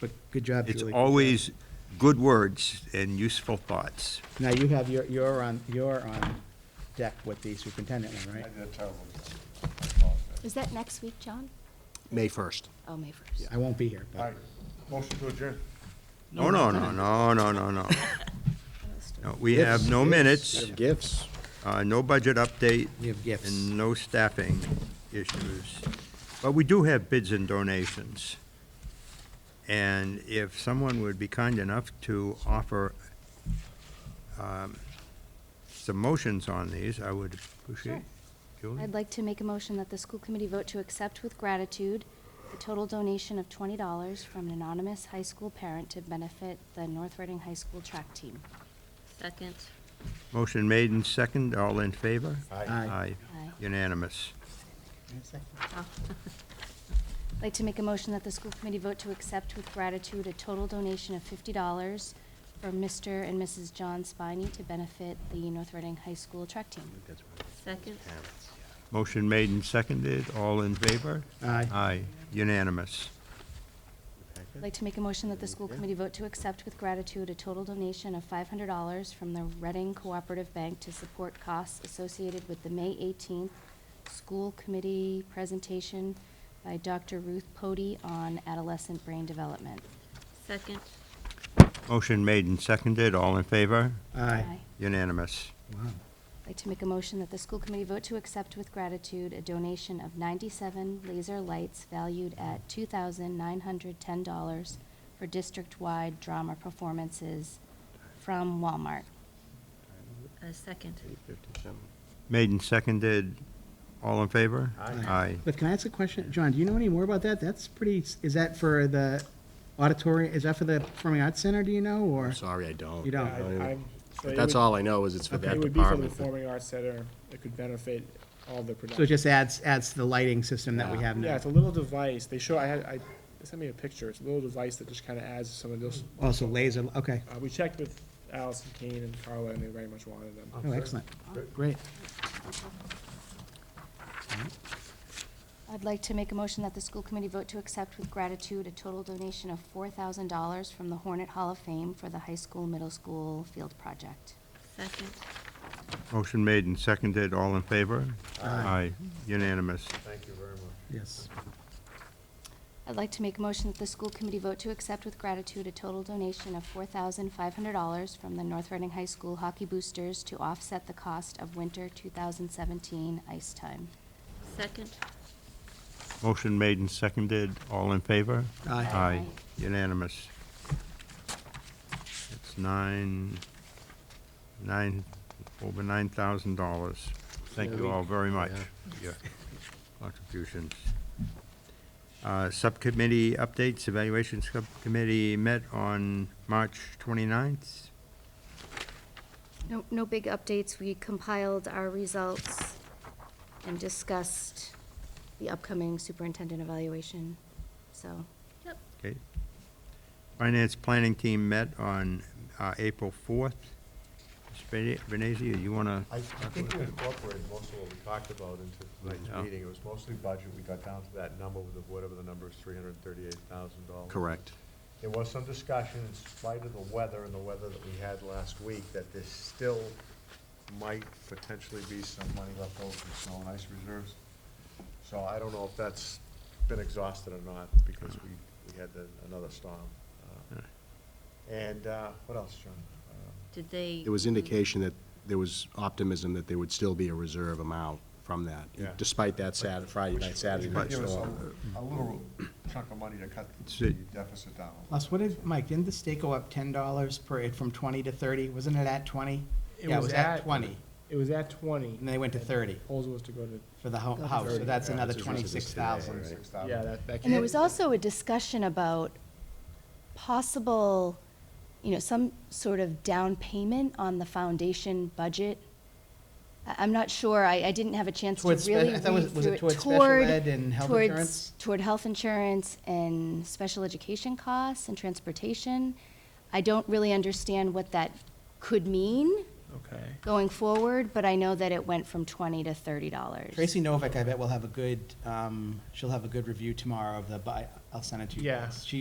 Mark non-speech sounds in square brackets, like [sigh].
But good job, It's Julie. always good words and useful thoughts. Now, you have your, you're on, you're on deck with the superintendent one, right? Is that next week, John? May 1st. Oh, May 1st. I won't be here, but All right, motion to adjourn. No, no, Oh, no, no, no, no, no. No, We have no minutes, Gifts. uh, no budget update, we have gifts. and no staffing issues. But we do have bids and donations. And if someone would be kind enough to offer um, some motions on these, I would appreciate. Julie? I'd like to make a motion that the school committee vote to accept with gratitude the total donation of $20 from an anonymous high school parent to benefit the North Reading High School track team. Second. Motion made and second, all in favor? Aye. Aye. Unanimous. Oh, I'd like to make a motion that the school committee vote to accept with gratitude a total donation of $50 from Mr. and Mrs. John Spiney to benefit the North Reading High School track team. Second. Motion made and seconded, all in favor? Aye. Aye, unanimous. I'd like to make a motion that the school committee vote to accept with gratitude a total donation of five hundred dollars from the Reading Cooperative Bank to support costs associated with the May eighteenth school committee presentation by Dr. Ruth Pody on adolescent brain development. [laughs] Second. Motion made and seconded, all in favor? Aye. Unanimous. Wow. I'd like to make a motion that the school committee vote to accept with gratitude a donation of ninety-seven laser lights valued at two thousand nine hundred ten dollars for district-wide drama performances from Walmart. Uh, second. Made and seconded, all in favor? Aye. But can I ask a question? John, do you know any more about that? That's pretty, is that for the auditorium, is that for the Performing Arts Center, do you know, or? Sorry, I don't. You don't. I I- I'm- so But it That's would- all I know is it's for that It would be for the department. performing arts center. It could benefit all the So it production. just adds, adds to the lighting system that we Yeah. have Yeah, now? it's a little device. They show, I had, I, they sent me a picture. It's a little device that just kind of adds some of those. Also laser, okay. Uh, we checked with Allison Kane and Carla and they very much wanted them. Oh, excellent. Great. I'd like to make a motion that the school committee vote to accept with gratitude a total donation of four thousand dollars from the Hornet Hall of Fame for the high school, middle school field project. Second. Motion made and seconded, all in favor? Aye. Unanimous. Yes. I'd like to make a motion that the school committee vote to accept with gratitude a total donation of four thousand five hundred dollars from the North Reading High School hockey boosters to offset the cost of winter two thousand seventeen ice time. Second. Motion made and seconded, all in favor? Aye. Aye, unanimous. It's nine, nine, over nine thousand dollars. Thank you all very much for your contributions. Uh, Subcommittee updates, evaluation subcommittee met on March 29th. No, no big updates. We compiled our results and discussed the upcoming superintendent evaluation, so. Yep. Okay. Finance planning team met on uh, April 4th. Ms. Venezia, you want to? I think we incorporated most of what we talked about into Yeah. tonight's meeting. It was mostly budget. We got down to that number with the- whatever the number is, three hundred and thirty-eight thousand dollars. Correct. There was some discussion in spite of the weather and the weather that we had last week, that there still might potentially be some money left over for snow and ice reserves. So I don't know if that's been exhausted or not, because we, we had the- another storm. Uh, And, uh, what else, John? Uh, Did they? There was indication that there was optimism that there would still be a reserve amount from that, Yeah. despite that Saturday, Friday night, Saturday night Give us storm. a, a little chunk of money to cut the Sit. deficit down. Les, what did, Mike, didn't the state go up ten dollars per, from twenty to thirty? Wasn't it at twenty? It Yeah, it was was at at- twenty, It was at twenty. and they went to thirty Proposal was to go to, for the ho- house, so that's another twenty-six thousand. Twenty-six thousand. yeah, that, that. And there was can't- also a discussion about possible, you know, some sort of down payment on the foundation budget. I, I'm not sure, I, I didn't have a chance to Towards spe- really I read thought was- was through it it. towards special ed and health towards- insurance? Toward health insurance and special education costs and transportation. I don't really understand what that could mean Okay. going forward, but I know that it went from twenty to thirty dollars. Tracy Novak, I bet will have a good, um, she'll have a good review tomorrow of the, bi- I'll send it to you Yeah. guys. She